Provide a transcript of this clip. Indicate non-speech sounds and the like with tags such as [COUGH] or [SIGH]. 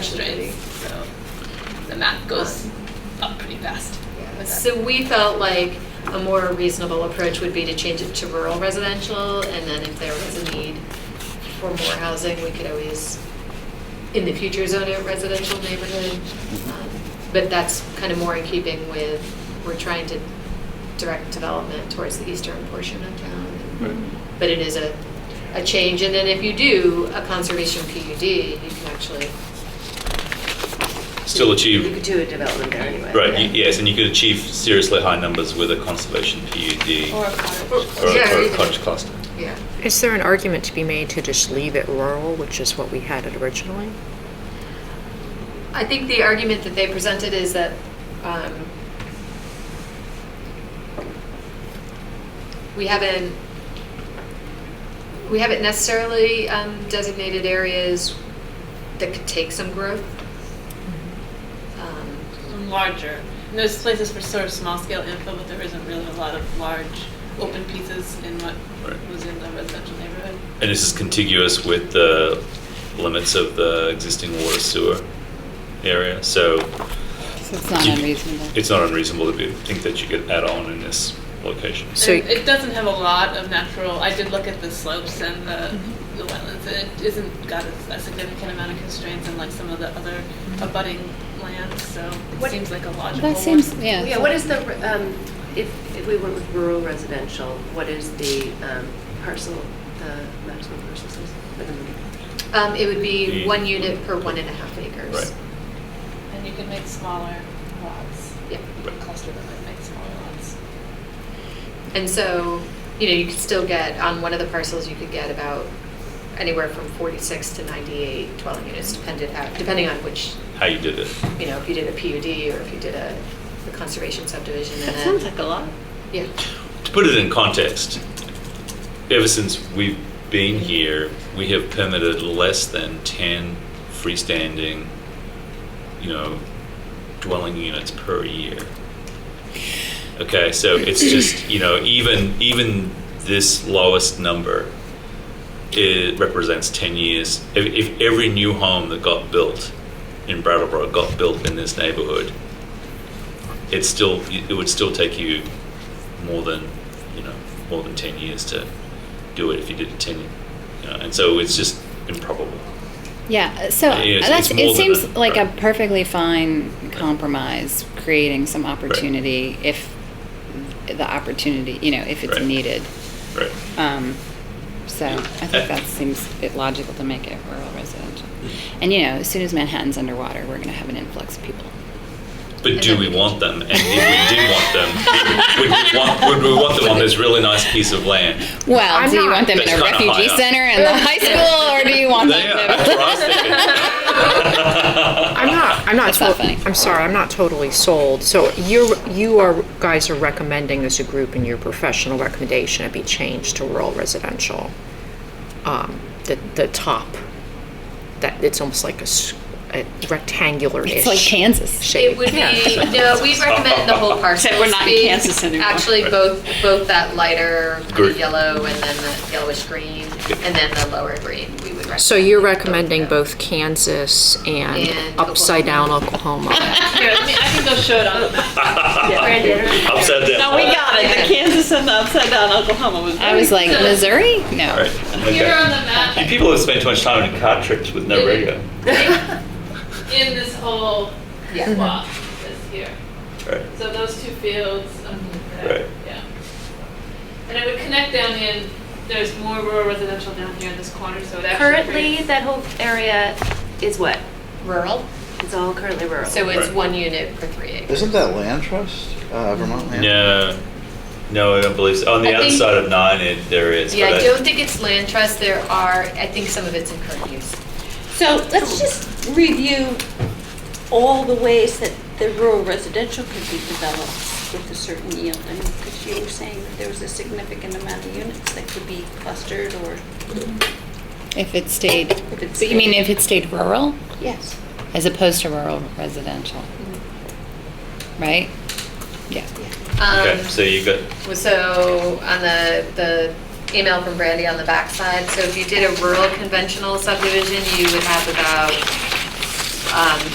math goes up pretty fast. with that. So we felt like a more reasonable approach would be to change it to rural residential, and then if there was a need for more housing, we could always, in the future, zone it residential neighborhood. Mm-hmm. Um, But that's kind of more in keeping with, we're trying to direct development towards the eastern portion of Right. town. But it is a, a change, and then if you do a conservation PUD, you can actually, Still You could achieve, do a development there anyway. right, y- yes, and you could achieve seriously high numbers with a conservation PUD Or a cottage. or a- Yeah, or a even- cottage cluster. yeah. Is there an argument to be made to just leave it rural, which is what we had it originally? I think the argument that they presented is that um, we haven't, we haven't necessarily um, designated areas that could take some growth. Um, and larger. And there's places for sort of small scale info, but there isn't really a lot of large open pieces in what Right. was in the residential neighborhood. And this is contiguous with the limits of the existing water sewer area, so So it's not You- unreasonable. it's not unreasonable to be, think that you could add on in this location. So- And it doesn't have a lot of natural. I did look at the slopes and the, the wetlands, and it isn't got a, a significant amount of constraints in like some of the other abutting lands. So it What- seems like a logical. That seems, one. yeah. Yeah, what is the, um, if, if we went with rural residential, what is the um, parcel, the maximum parcel size? um, It would be The- one unit per one and a half acres. Right. And you can make smaller lots. Yeah. You can cluster them and make smaller lots. And so, you know, you could still get, on one of the parcels, you could get about anywhere from 46 to 98 dwelling units, depended, how- depending on which How you did it. you know, if you did a PUD or if you did a a conservation subdivision and That then. sounds like a lot. Yeah, To put it in context, ever since we've been here, we have permitted less than 10 freestanding, you know, dwelling units per year. Okay, so it's just, you know, even even this lowest number it represents 10 years. If, if every new home that got built in Brattleboro got built in this neighborhood, it's still it would still take you more than you know more than 10 years to do it if you did it 10 you know, and so it's just improbable Yeah, so Yeah, it's- that's, it's more it seems than a- like a right. perfectly fine compromise, creating some opportunity if the opportunity, you know, if it's Right. needed. right Um, So I Uh, think that seems it logical to make it rural residential. And, you know, as soon as Manhattan's underwater, we're going to have an influx of people. but do we want them and if we did want them would we want, would we want them on this really nice piece of land Well, I'm do you not- want them in That's a kinda high refugee up. center and the high school, or do you want them? yeah, that's what I was thinking. I'm not, I'm not, That's not tot- funny. I'm sorry, I'm not totally sold. So you're, you are, guys are recommending as a group in your professional recommendation it be changed to rural residential. Um, The, the top, that, it's almost like a s- a rectangular-ish. It's like Kansas. it shape. would be, no, we recommend the whole parcel. Except we're not in be Kansas anymore. Actually, Right. both, both that lighter kinda Green. yellow and then the yellowish green and then the lower green, we would recommend. So you're both of recommending them. both Kansas and And upside-down Oklahoma? [LAUGHS] Here, let me, I can go show it on the map. upside down No, we got it. The Kansas and the upside down Oklahoma was. I was like, Missouri? No. all right Here on okay. the map, You people have spent too much time in car trips with no radio in this whole Yeah. plot is here. right So those two fields, um, Right. yeah. And it would connect down in, there's more rural residential down here in this corner, so it actually. Currently, creates- that whole area is what? Rural, It's all currently rural. so it's Right. one unit per three acres. Isn't that land trust, uh, Vermont land? no no I don't believe so on the I other think- side of nine it, there is Yeah, but I don't think it's land trust, there are, I think some of it's in current use. So let's just review all the ways that the rural residential could be developed with a certain yield. I mean, because you were saying that there was a significant amount of units that could be clustered or. If it stayed, If it but you mean if it stayed rural Yes. as opposed to rural residential? Right? Yeah. okay Um, so you got Well, So on the, the email from Brandy on the backside, so if you did a rural conventional subdivision, you would have about um,